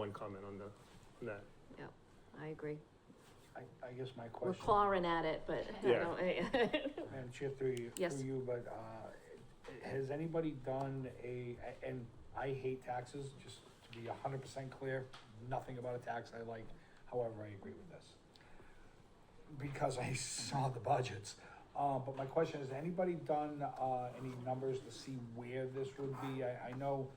one comment on the, on that. I agree. I, I guess my We're question, clawing at it, but I Yeah. don't- Madam Chair, through you, Yes. through you, but, uh, has anybody done a, and I hate taxes, just to be a hundred percent clear, nothing about a tax I like, however, I agree with this. Because I saw the budgets, uh, but my question, has anybody done, uh, any numbers to see where this would be? I, I know,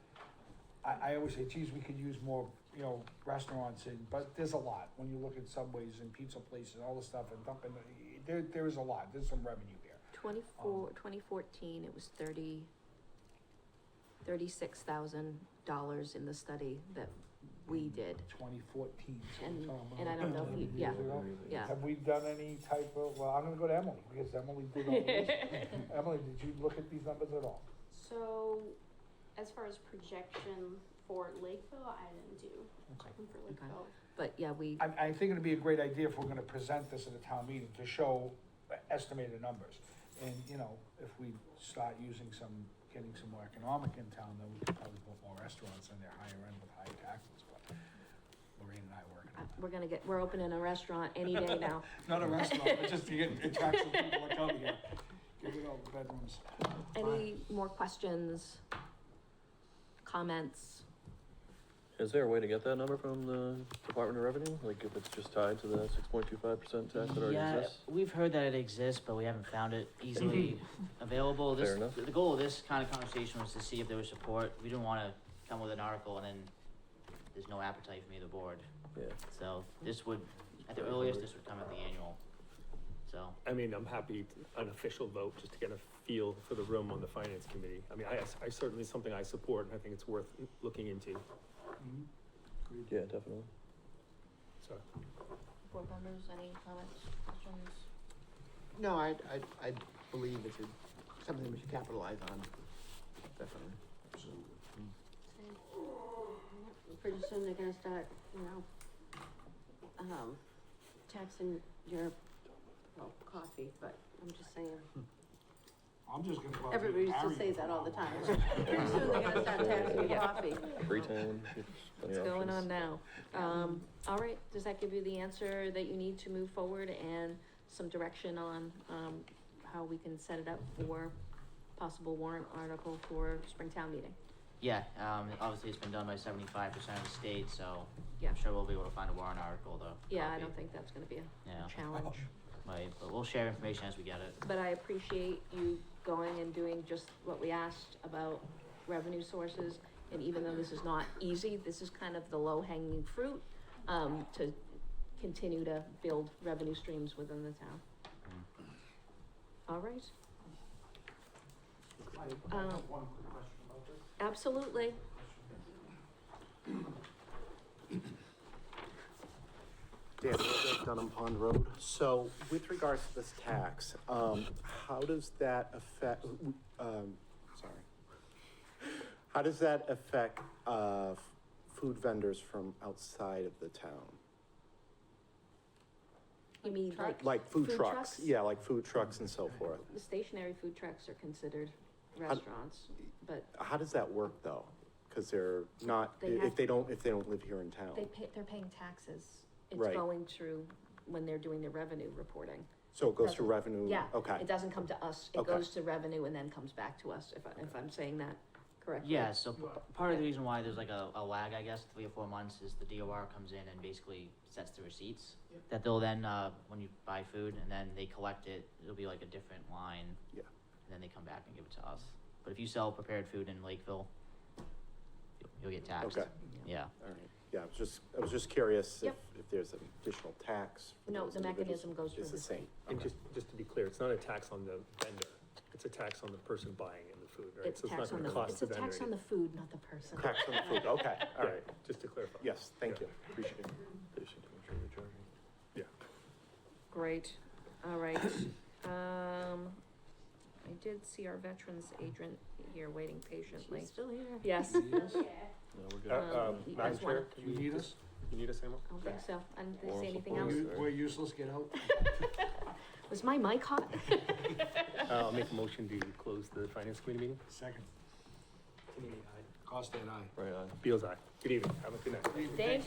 I, I always say, geez, we could use more, you know, restaurants and, but there's a lot, when you look at Subways and pizza places and all this stuff and dumping, there, there is a lot, there's some revenue there. Twenty-four, twenty fourteen, it was thirty, thirty-six thousand dollars in the study that we Mm. did. Twenty fourteen. And- and I don't know if you- yeah, yeah. Have we done any type of, well, I'm gonna go to Emily, because Emily did all this. Emily, did you look at these numbers at all? So, as far as projection for Lakeville, I didn't do Okay. one for Lakeville. But yeah, we, I, I think it'd be a great idea if we're gonna present this at a town meeting to show estimated numbers. And, you know, if we start using some, getting some more economic in town, then we could probably put more restaurants in there higher end with higher taxes, but Lorraine and I are working I- on we're gonna get, we're opening a restaurant any day now. that. Not a restaurant, but just to get, attract some people to come here, give it all the bedrooms. Any more questions? Comments? Is there a way to get that number from the Department of Revenue? Like if it's just tied to the six point two five percent tax that already Yeah, exists? We've heard that it exists, but we haven't found it easily available. This, Fair enough. the goal of this kind of conversation was to see if there was support. We didn't wanna come with an article and then there's no appetite from either board. Yeah. So this would, at the earliest, this would come at the annual. So, I mean, I'm happy, to- an official vote, just to get a feel for the room on the finance committee. I mean, I, I certainly, something I support, and I think it's worth looking into, Mm-hmm. Mhm. Agreed. Yeah, definitely. so. Board members, any comments, questions? No, I, I, I believe it's a- something we should capitalize on, definitely. Pretty soon they're gonna start, you know, um, taxing your, well, coffee, but I'm just saying. I'm just gonna go out and Everybody used marry to say you that from all the now on. time. Pretty soon they're gonna start taxing your coffee. Freetown. What's going on now? Um, all right, does that give you the answer that you need to move forward and some direction on, um, how we can set it up for possible warrant article for Springtown meeting? yeah, um, obviously it's been done by seventy-five percent of the state, so Yeah. I'm sure we'll be able to find a warrant article though. Yeah, I don't think that's gonna be a Yeah, challenge, right, but we'll share information as we get it. but I appreciate you going and doing just what we asked about revenue sources. And even though this is not easy, this is kind of the low hanging fruit, um, to continue to build revenue streams within the town. All right. I Um, have one quick question about this. Absolutely. Dan, we're at Dunham Pond Road. So with regards to this tax, um, how does that affect, um, sorry. How does that affect, uh, f- food vendors from outside of the town? You mean like Like food Food trucks? trucks? Yeah, like food trucks and so forth. the stationary food trucks are considered restaurants, but How does that work though? Cause they're not, They have- if they don't, if they don't live here in town. they pay, they're paying taxes. It's Right. going through when they're doing their revenue reporting. So it goes to revenue? Yeah. Okay. It doesn't come to us. It Okay. goes to revenue and then comes back to us, if, I- if I'm saying that correctly. Yeah, so p- part of the reason why there's like a, a lag, I guess, three or four months is the DOR comes in and basically sets the receipts that they'll then, uh, when you buy food and then they collect it, it'll be like a different line. Yeah. And then they come back and give it to us. But if you sell prepared food in Lakeville, you'll- you'll get taxed. Okay. Yeah. All right, yeah, I was just, I was just curious if, Yep. if there's an additional tax. for No, those the individuals. mechanism goes through It's the the same. And Okay. just, just to be clear, it's not a tax on the vendor, it's a tax on the person buying in the food, right? It's So not tax on gonna the, cost it's a vendor tax on the food, not the person. Tax on the food, okay, anything. all right, Yeah, Just to clarify. yes, thank you, appreciate it. Great, all right. Um, I did see our veterans agent here waiting patiently. She's still here. Yes. Yeah. No, we're good. Uh, uh, Um, Madam you guys wanna- Chair, Do uh, you need us? you need us, Emma? I don't think so. I didn't Moral see anything else. support. We're- we're useless, get out. Was my mic hot? Uh, I'll make a motion to close the finance committee meeting. Second. Cost and I. Right on. Beal's aye. Good evening, have a good night. Thank